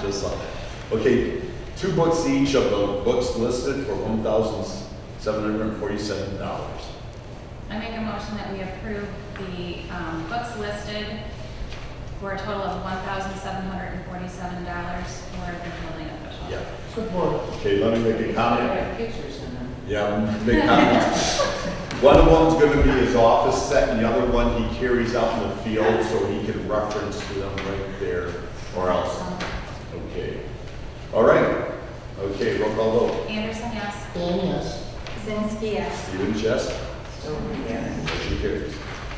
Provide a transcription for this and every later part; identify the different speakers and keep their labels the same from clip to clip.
Speaker 1: this on it. Okay, two books each of the books listed for one thousand seven hundred and forty-seven dollars.
Speaker 2: I make a motion that we approve the um, books listed for a total of one thousand seven hundred and forty-seven dollars for the building official.
Speaker 1: Yeah.
Speaker 3: Support.
Speaker 1: Okay, let me make a comment.
Speaker 3: Got Pictures in them.
Speaker 1: Yeah, big comments. One of them's gonna be his office set, and the other one he carries out in the field, so he can reference to them right there, or else. Okay. All right. Okay, roll call vote.
Speaker 2: Anderson, yes.
Speaker 3: Dan, yes.
Speaker 2: Zinsky, yes.
Speaker 1: Stephen Chess,
Speaker 3: Stover, yes.
Speaker 1: motion carries.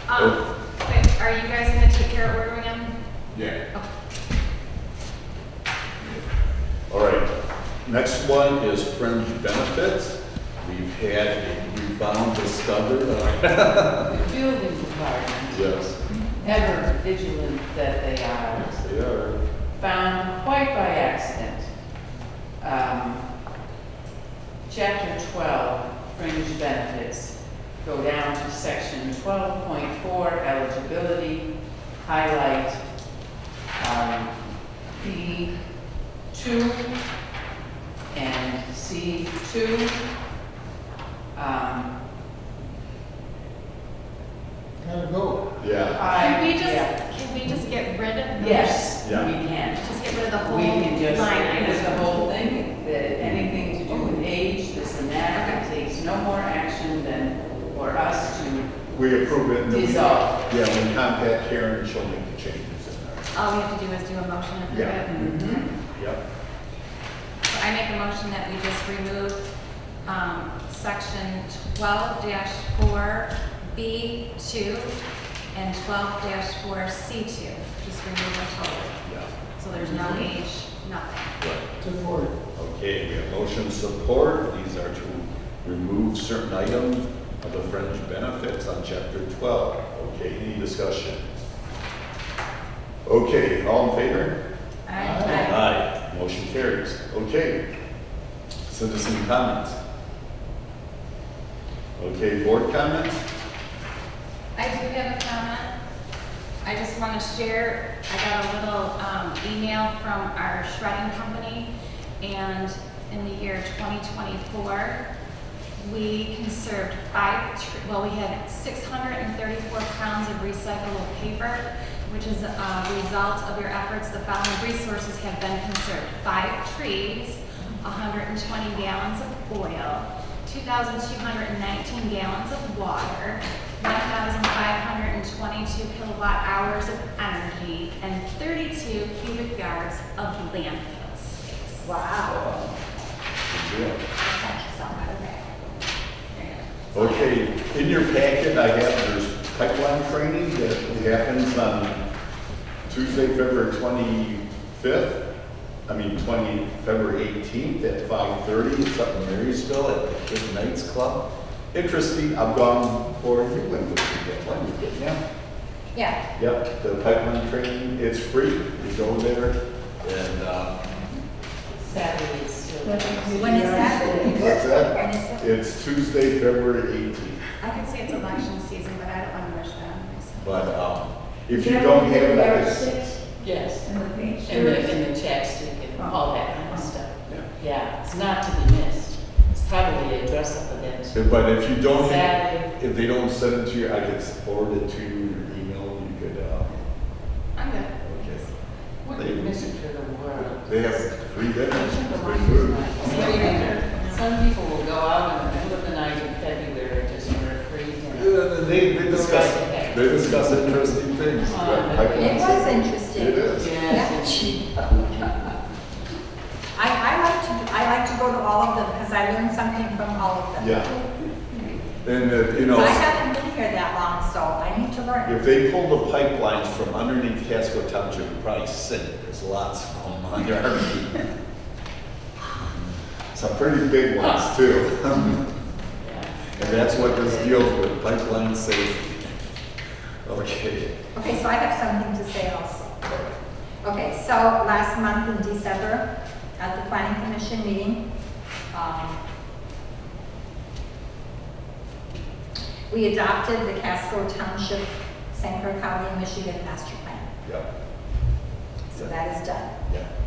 Speaker 2: Um, wait, are you guys gonna take care of ordering them?
Speaker 1: Yeah.
Speaker 2: Okay.
Speaker 1: All right, next one is fringe benefits. We've had a rebound discovered.
Speaker 3: The building department,
Speaker 1: Yes,
Speaker 3: ever vigilant that they are,
Speaker 1: yes, they are.
Speaker 3: found quite by accident. Um, Chapter 12, fringe benefits, go down to section 12.4, eligibility, highlight um, B2 and C2. Um,
Speaker 4: Gotta go.
Speaker 1: Yeah,
Speaker 3: I-
Speaker 2: Can we just,
Speaker 3: yeah.
Speaker 2: can we just get rid of those?
Speaker 3: Yes, we
Speaker 1: Yeah.
Speaker 3: can.
Speaker 2: Just get rid of the whole
Speaker 3: We
Speaker 2: line
Speaker 3: can just, because the
Speaker 2: item?
Speaker 3: whole thing, that anything to do with age, this and that, it takes no more action than for us to
Speaker 1: we approve it. and then we-
Speaker 3: dissolve.
Speaker 1: Yeah, we contact Karen, and she'll make the changes in there.
Speaker 2: All we have to do is do a motion and approve
Speaker 1: Yeah.
Speaker 2: it.
Speaker 3: Mhm.
Speaker 1: Yep.
Speaker 2: So I make a motion that we just remove, um, section twelve four B two and twelve four C two. Just remove them totally.
Speaker 1: Yeah,
Speaker 2: So there's no
Speaker 3: Mm-hmm.
Speaker 2: age, nothing.
Speaker 1: right.
Speaker 4: Support.
Speaker 1: Okay, we have motion support. These are to remove certain items of the fringe benefits on chapter 12. Okay, any discussion? Okay, all in favor?
Speaker 2: Aye.
Speaker 1: Aye. Motion carries. Okay. Citizen comments. Okay, board comments?
Speaker 2: I do have a comment. I just want to share, I got a little um, email from our shredding company, and in the year 2024, we conserved five, tr- well, we had 634 pounds of recyclable paper, which is a result of your efforts. The following resources have been conserved. Five trees, 120 gallons of oil, 2,219 gallons of water, 1,522 kilowatt hours of energy, and 32 cubic yards of landfill space.
Speaker 1: Wow.
Speaker 2: Thank you so much.
Speaker 1: Okay, in your packet, I have, there's pipeline training that happens on Tuesday, February twenty-fifth. I mean, twenty, February eighteenth at five-thirty, it's up in Marysville at the Kid Knights Club. Interesting, I've gone for, you went with me that one, didn't you?
Speaker 2: Yeah,
Speaker 1: Yep, the pipeline training, it's free, you go there, and, uh,
Speaker 3: Saturday is still.
Speaker 2: When is that?
Speaker 1: what's that?
Speaker 2: and it's,
Speaker 1: It's Tuesday, February eighteenth.
Speaker 2: I could say it's election season, but I don't want to rush that on myself.
Speaker 1: But um, if you don't have it, I guess,
Speaker 3: Yes, Oh.
Speaker 5: And the pink
Speaker 3: and the,
Speaker 5: shirts.
Speaker 3: and the chapstick and all that kind of stuff.
Speaker 1: yeah.
Speaker 3: Yeah, it's not to be missed. It's probably a dress up event.
Speaker 1: but if you don't, have-
Speaker 3: Saturday,
Speaker 1: if they don't send it to you, I could forward it to you, your email, you could, uh,
Speaker 2: I'm good.
Speaker 1: okay.
Speaker 3: wouldn't miss it for the world.
Speaker 1: They have free dinners, free food.
Speaker 3: Some people will go out in the middle of the night in February just for a free dinner.
Speaker 1: Yeah, and They, they discuss, they discuss interesting things. but I
Speaker 5: It
Speaker 1: can-
Speaker 5: was
Speaker 1: It
Speaker 5: interesting.
Speaker 1: is.
Speaker 3: Yes,
Speaker 5: I, I like to, I like to go to all of them because I learned something from all of them.
Speaker 1: Yeah. And, uh, you know.
Speaker 5: So I haven't been here that long, so I need to learn.
Speaker 1: If they pull the pipelines from underneath Casco Township, you probably sink, there's lots of them under our feet. Some pretty big ones too. And that's what this deals with, pipeline safety. Okay,
Speaker 5: Okay, so I have something to say also. Okay, so last month in December, at the planning commission meeting, um, we adopted the Casco Township, San Clair County, Michigan Master Plan.
Speaker 1: yeah,
Speaker 5: So that is done.
Speaker 1: yeah.